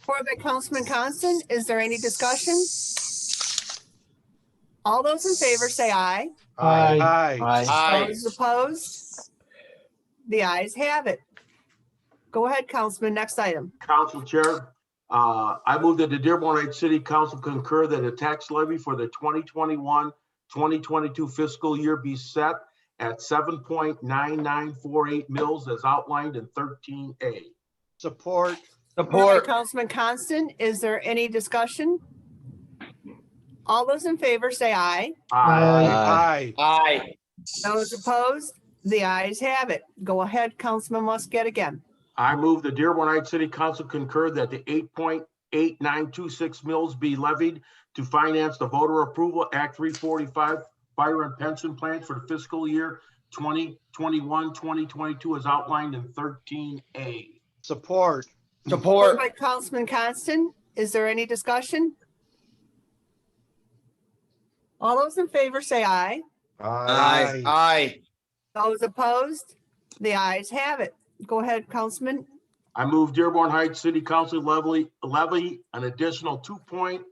Support by Councilman Constant. Is there any discussion? All those in favor say aye. Aye. Aye. Aye. Those opposed? The ayes have it. Go ahead, Councilman. Next item. Council Chair, uh, I move that the Dearborn Heights City Council concur that a tax levy for the 2021, 2022 fiscal year be set at 7.9948 mils as outlined in 13A. Support. Support by Support. Councilman Constant. Is there any discussion? All those in favor say aye. Aye. Aye. Aye. Those opposed? The ayes have it. Go ahead, Councilman Muscat again. I move the Dearborn Heights City Council concur that the 8.8926 mils be levied to finance the voter approval Act 345 fire and pension plans for the fiscal year 2021, 2022 as outlined in 13A. Support Support. Support. by Councilman Constant. Is there any discussion? All those in favor say aye. Aye. Aye. Those opposed? The ayes have it. Go ahead, Councilman. I move Dearborn Heights City Council levy, levy an additional two point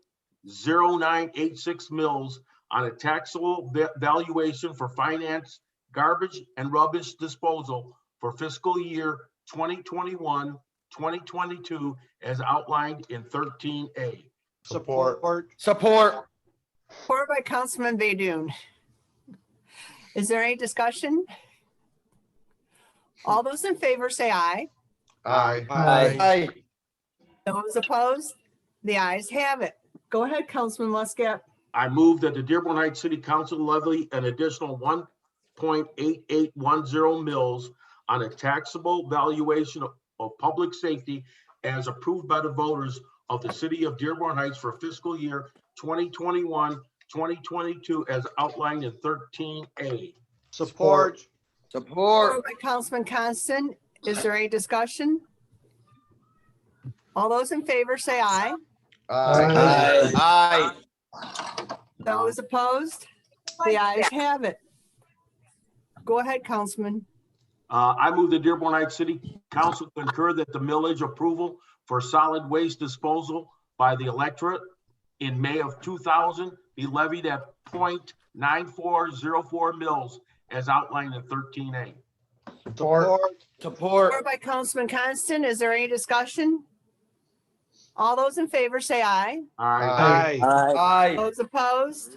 zero nine eight six mils on a taxable va- valuation for finance, garbage and rubbish disposal for fiscal year 2021-2022, as outlined in thirteen A. Support. Support. Support by Councilman Baydun. Is there any discussion? All those in favor say aye. Aye. Aye. Those opposed? The ayes have it. Go ahead, Councilman Muscat. I move that the Dearborn Heights City Council levy an additional one point eight eight one zero mils on a taxable valuation of, of public safety as approved by the voters of the city of Dearborn Heights for fiscal year 2021-2022, as outlined in thirteen A. Support. Support. Support by Councilman Constant. Is there any discussion? All those in favor say aye. Aye. Aye. Those opposed? The ayes have it. Go ahead, Councilman. Uh, I move the Dearborn Heights City Council concur that the millage approval for solid waste disposal by the electorate in May of two thousand be levied at 0.9404 mils as outlined in thirteen A. Support. Support. Support by Councilman Constant. Is there any discussion? All those in favor say aye. Aye. Aye. Those opposed?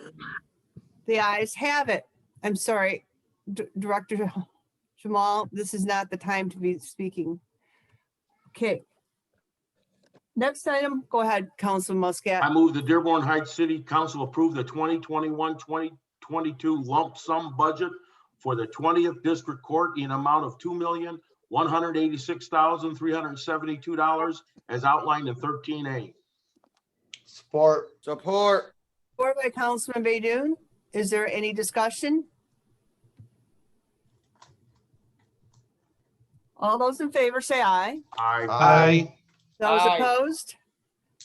The ayes have it. I'm sorry, D- Director Jamal, this is not the time to be speaking. Okay. Next item, go ahead, Councilman Muscat. I move the Dearborn Heights City Council approve the 2021, 2022 lump sum budget for the 20th District Court in amount of $2,186,372 as outlined in 13A. Support. Support. Support by Councilman Baydun. Is there any discussion? All those in favor say aye. Uh, Aye. Aye. Those Aye. opposed?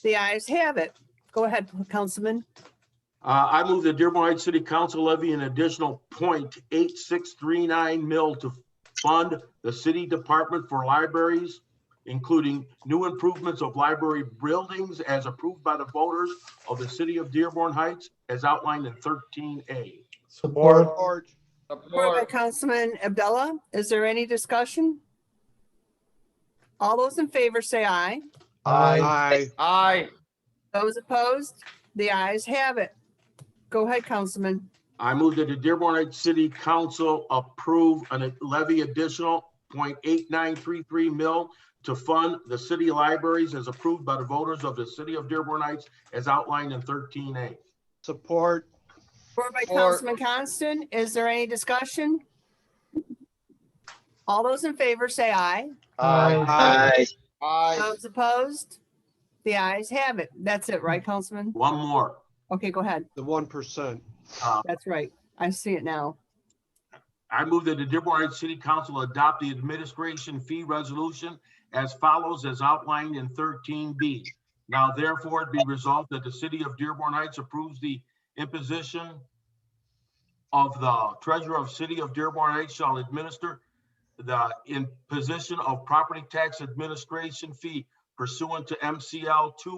The ayes have it. Go ahead, Councilman. Uh, I move the Dearborn Heights City Council levy an additional 0.8639 mil to fund the city department for libraries, including new improvements of library buildings as approved by the voters of the city of Dearborn Heights as outlined in thirteen A. Support. Support by Support. Councilman Abdullah. Is there any discussion? All those in favor say aye. Aye. Aye. Those opposed? The ayes have it. Go ahead, Councilman. I move that the Dearborn Heights City Council approve and levy additional 0.8933 mil to fund the city libraries as approved by the voters of the city of Dearborn Heights as outlined in thirteen A. Support. Support by Support. Councilman Constant. Is there any discussion? All those in favor say aye. Aye. Aye. Those opposed? The ayes have it. That's it, right, Councilman? One more. Okay, go ahead. The one percent. That's right. I see it now. I move that the Dearborn Heights City Council adopt the administration fee resolution as follows as outlined in thirteen B. Now therefore it be resolved that the city of Dearborn Heights approves the imposition of the treasurer of city of Dearborn Heights shall administer the imposition of property tax administration fee pursuant to MCL two